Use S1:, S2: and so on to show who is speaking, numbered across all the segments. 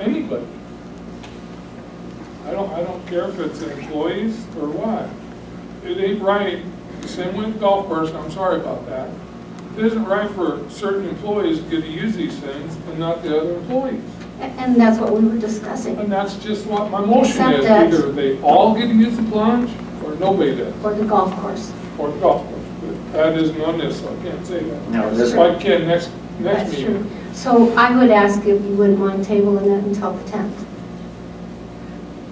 S1: anybody. I don't, I don't care if it's employees or what. It ain't right, same with golf course, I'm sorry about that. It isn't right for certain employees to get to use these things and not the other employees.
S2: And that's what we were discussing,
S1: And that's just what my motion
S2: Except
S1: is,
S2: that-
S1: either they all get to use the plunge or nobody does,
S2: or the golf course.
S1: or the golf course. But That isn't on this, so I can't say that.
S3: No, this-
S1: So I can next, next
S2: That's true.
S1: meeting.
S2: So I would ask if you wouldn't mind tabling it until the 10th.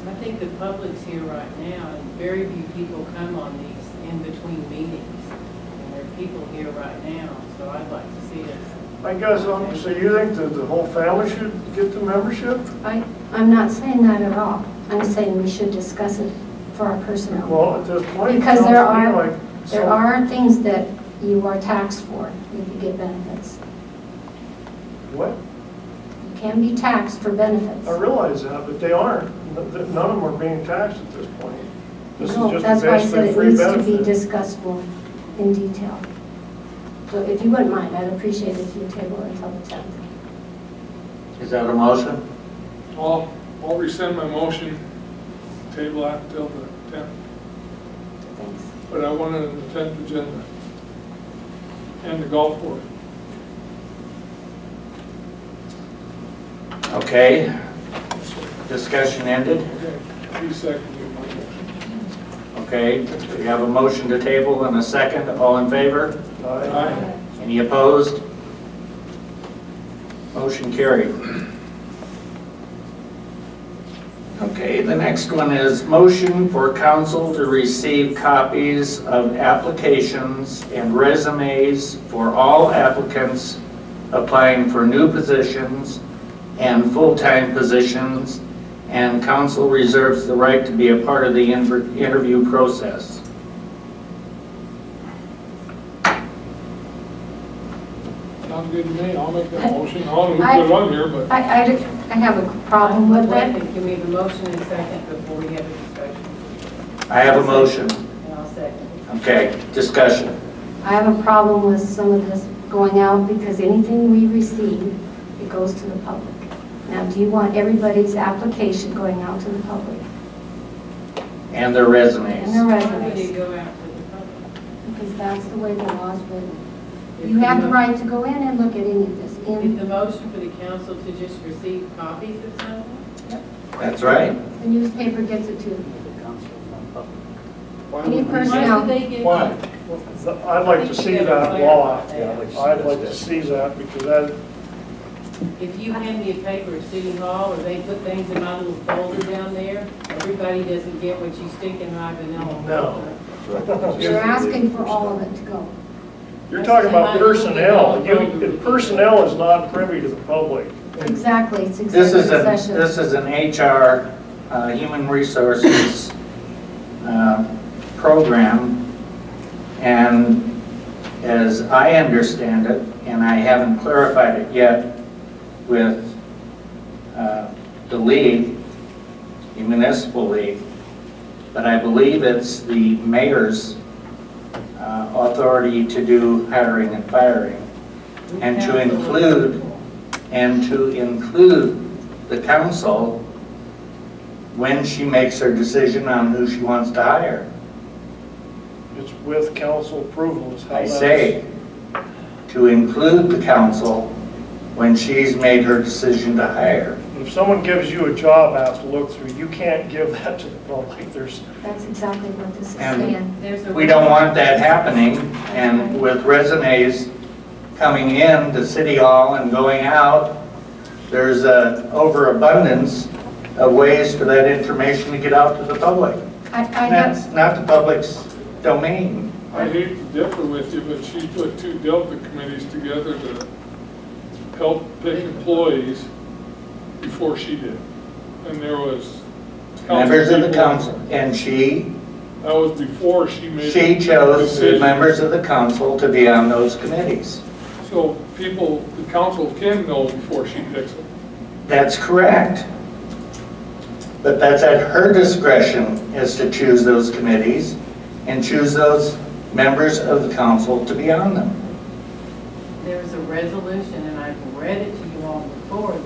S4: I think the public's here right now, and very few people come on these in-between meetings. And there are people here right now, so I'd like to see us.
S5: I guess, um, so you think that the whole family should get the membership?
S2: I, I'm not saying that at all. I'm saying we should discuss it for our personnel.
S5: Well, at this point, it
S2: Because
S5: sounds to me
S2: there are,
S5: like.
S2: there
S5: some-
S2: are things that you are taxed for if you get benefits.
S5: What?
S2: You can be taxed for benefits.
S5: I realize that, but they aren't. N- th- None of them are being taxed at this point. This is
S2: No,
S5: just
S2: that's why I said
S5: basically
S2: it
S5: free
S2: needs to be
S5: benefit.
S2: discussed more in detail. So if you wouldn't mind, I'd appreciate if you table it until the 10th.
S3: Is that a motion?
S1: I'll, I'll rescind my motion, table that till the tenth.
S2: Thanks.
S1: But I wanted an tenth agenda. And the golf course.
S3: Okay. Discussion ended.
S1: Okay, three seconds of my motion.
S3: Okay, we have a motion to table and a second. All in favor?
S5: Aye.
S1: Aye.
S3: Any opposed? Motion carried. Okay, the next one is motion for council to receive copies of applications and resumes for all applicants applying for new positions and full-time positions, and council reserves the right to be a part of the inter- interview process.
S1: Sounds good to me, I'll make that motion, I don't
S2: I-
S1: put it on here, but
S2: I, I, do- I have a problem with
S4: Wait a
S2: it.
S4: minute, Can we have a motion and second before we have a discussion?
S3: I have a motion.
S4: And I'll second.
S3: Okay, discussion.
S2: I have a problem with some of this going out because anything we receive, it goes to the public. Now, do you want everybody's application going out to the public
S3: And their
S2: and their
S3: resumes.
S4: Why would it
S2: resumes?
S4: go out to the public?
S2: Because that's the way the law's written.
S4: If
S2: You have the
S4: mo-
S2: right to go in and look at any of this.
S4: Is
S2: And
S4: the motion for the council to just receive copies of something?
S3: That's right.
S2: the newspaper gets it too.
S5: Why
S2: Any
S5: would we-
S2: person-
S4: Why
S2: Personnel.
S4: would they get?
S1: why?
S5: I'd like to see that law. I'd like to see that because that,
S4: If you hand me a paper at City Hall, or they put things in my little folder down there, everybody doesn't get what you stick in my vanilla
S5: No.
S4: folder.
S2: You're asking for all of it to go.
S5: you're talking about personnel. You, personnel is not privy to the public.
S2: Exactly, it's
S3: This
S2: executive
S3: is a,
S2: session.
S3: this is an HR, uh, Human Resources, uh, program. And as I understand it, and I haven't clarified it yet with, uh, the league, the municipal league, but I believe it's the mayor's, uh, authority to do hiring and firing. And to include- and to include the council when she makes her decision on who she wants to hire.
S5: It's with council approval is how
S3: I
S5: that's.
S3: say, to include the council when she's made her decision to hire.
S5: If someone gives you a job ask to look through, you can't give that to the public. There's,
S2: That's exactly what this is
S3: And-
S2: saying.
S4: There's a-
S3: We don't want that happening, and with resumes coming in to City Hall and going out, there's an overabundance of ways for that information to get out to the public.
S2: I, I
S3: And
S2: have,
S3: that's not the public's domain.
S1: I hate to differ with you, but she put two Delta committees together to help pick employees before she did. And there was. council
S3: Members of the
S1: people-
S3: council, and she,
S1: That was before she made.
S3: she chose the
S1: decision.
S3: members of the council to be on those committees.
S1: So people, the council can know before she picks them.
S3: That's correct. But that's at her discretion is to choose those committees and choose those members of the council to be on them.
S4: There's a resolution, and I've read it to you all before,